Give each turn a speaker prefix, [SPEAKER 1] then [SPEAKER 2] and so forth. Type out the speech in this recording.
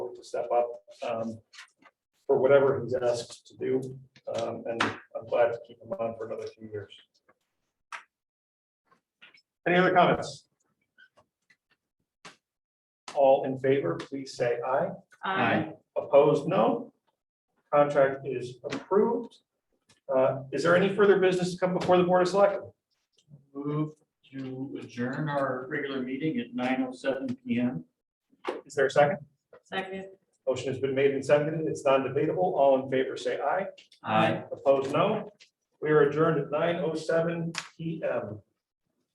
[SPEAKER 1] to step up um, for whatever he's asked to do. um, And I'm glad to keep him on for another few years. Any other comments? All in favor, please say aye.
[SPEAKER 2] Aye.
[SPEAKER 1] Opposed, no. Contract is approved. Uh, Is there any further business to come before the Board of Selectmen?
[SPEAKER 2] Move to adjourn our regular meeting at nine oh seven P M.
[SPEAKER 1] Is there a second?
[SPEAKER 3] Second.
[SPEAKER 1] Motion has been made and seconded. It's non-debatable. All in favor, say aye.
[SPEAKER 2] Aye.
[SPEAKER 1] Opposed, no. We are adjourned at nine oh seven P M.